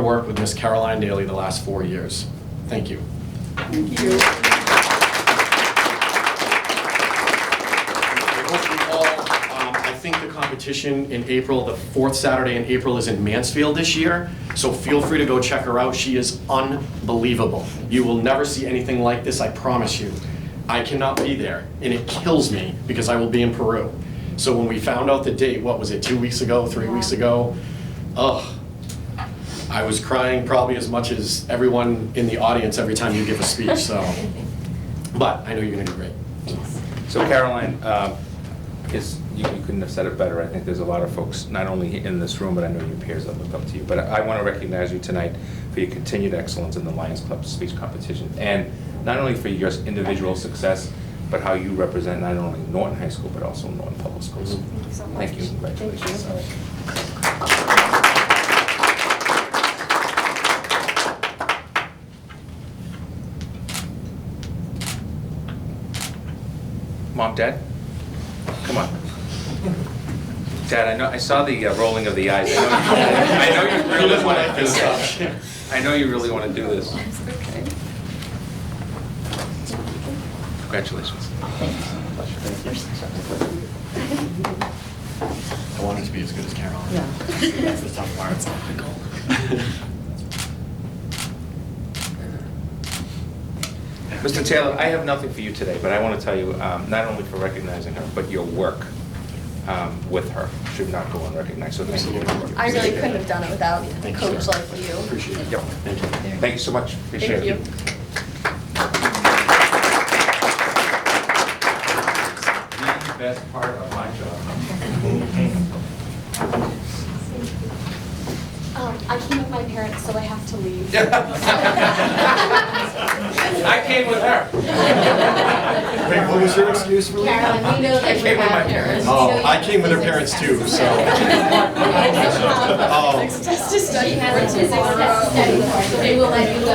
work with Miss Caroline Daly the last four years. Thank you. Thank you. I hope you all, um, I think the competition in April, the fourth Saturday in April is in Mansfield this year, so feel free to go check her out. She is unbelievable. You will never see anything like this, I promise you. I cannot be there, and it kills me because I will be in Peru. So when we found out the date, what was it, two weeks ago, three weeks ago? Ugh, I was crying probably as much as everyone in the audience every time you give a speech, so. But I know you're gonna do great. So Caroline, um, I guess you you couldn't have said it better. I think there's a lot of folks, not only in this room, but I know your peers that look up to you. But I want to recognize you tonight for your continued excellence in the Lions Club Speech Competition. And not only for your individual success, but how you represent not only Norton High School, but also Norton Public Schools. Thank you so much. Thank you, congratulations. Thank you. Mom, Dad, come on. Dad, I know, I saw the uh, rolling of the eyes. I know you- I know you really want to do this. I know you really want to do this. It's okay. Congratulations. I wanted to be as good as Carol. Yeah. That's the tough part. It's not my goal. Mr. Taylor, I have nothing for you today, but I want to tell you, um, not only for recognizing her, but your work um, with her should not go unrecognized, so thank you. I really couldn't have done it without a Thank you, coach sir. like you. Appreciate it. Yep. Thank you. Thank you so much, appreciate it. Thank you. The best part of my job. Um, I came with my parents, so I have to leave. I came with her. Wait, what was your excuse for leaving? Carolyn, we know I that came you with my have parents. parents. Oh, I came with her parents too, so. Oh, Just to study. She has a physics test to study for, so they will let you go.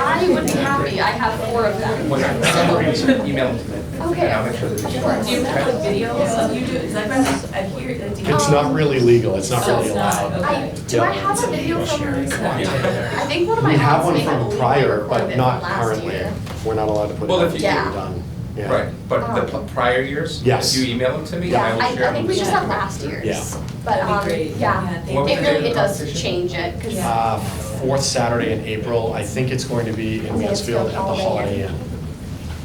I would be happy, I have four of them. Email them today. Okay. And I'll make sure that they- Do you have the videos of you do, is that, I hear, I do. it's not really legal, it's not really So it's not, allowed. I, okay. do I have a video from, I think one of my. We have aunts one may a from legal prior, but requirement not last currently. year. We're not allowed to put it Well, on if you- Yeah. done. Yeah. Right, but the pl- prior years? Yes. If you email them to me, Yeah, I I, will share I them. think we just have last year's. Yeah. But, That'd be um, great. yeah, thank it What was the date of really, the it does competition? change it, because Yeah. Uh, Fourth Saturday in April, I think it's going to be in Mansfield at the Holiday Inn.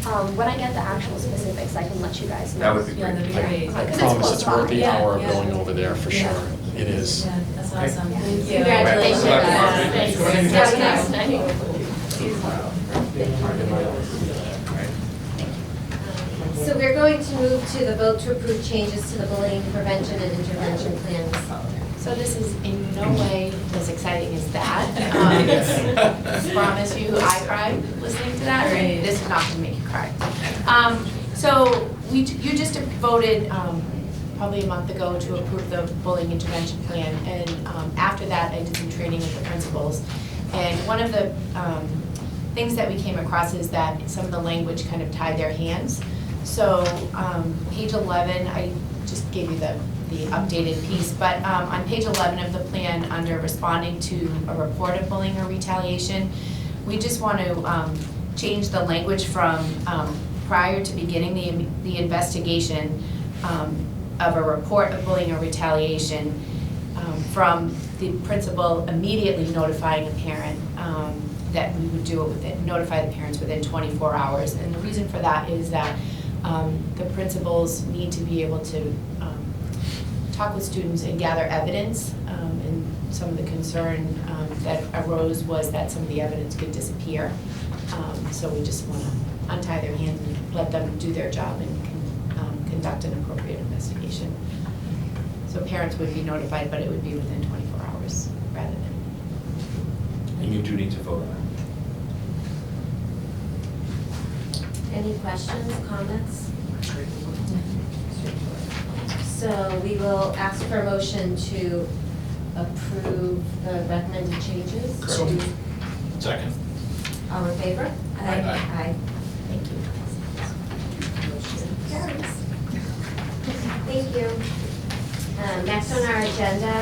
um, when I get the actual specifics, I can let you guys know. That would be Yeah, great. that'd be I great. I Because it's promise close it's worth the by. hour of Yeah, yeah. going over there, for Yeah. sure. It is. Yeah, that's awesome, thank you. Congratulations. Thanks. Congratulations. Have a nice night. So we're going to move to the vote to approve changes to the bullying prevention and intervention plans. So this is in no way as exciting as that. Um, Promise you, I cried listening to that. Right. This is not gonna make you cry. Um, So we, you just voted um, probably a month ago to approve the bullying intervention plan. And um, after that, I did some training with the principals. And one of the um, things that we came across is that some of the language kind of tied their hands. So um, page 11, I just gave you the, the updated piece, but um, on page 11 of the plan, under responding to a report of bullying or retaliation, we just want to um, change the language from um, prior to beginning the, the investigation um, of a report of bullying or retaliation um, from the principal immediately notifying a parent um, that we would do it within, notify the parents within 24 hours. And the reason for that is that um, the principals need to be able to um, talk with students and gather evidence. um, And some of the concern um, that arose was that some of the evidence could disappear. Um, So we just want to untie their hands and let them do their job and con- um, conduct an appropriate investigation. So parents would be notified, but it would be within 24 hours rather than. And you do need to vote on it. Any questions, comments? So we will ask for a motion to approve the recommended changes. Second. All in favor? Aye. Thank you. Aye. Carries. Thank you. Um, Next on our agenda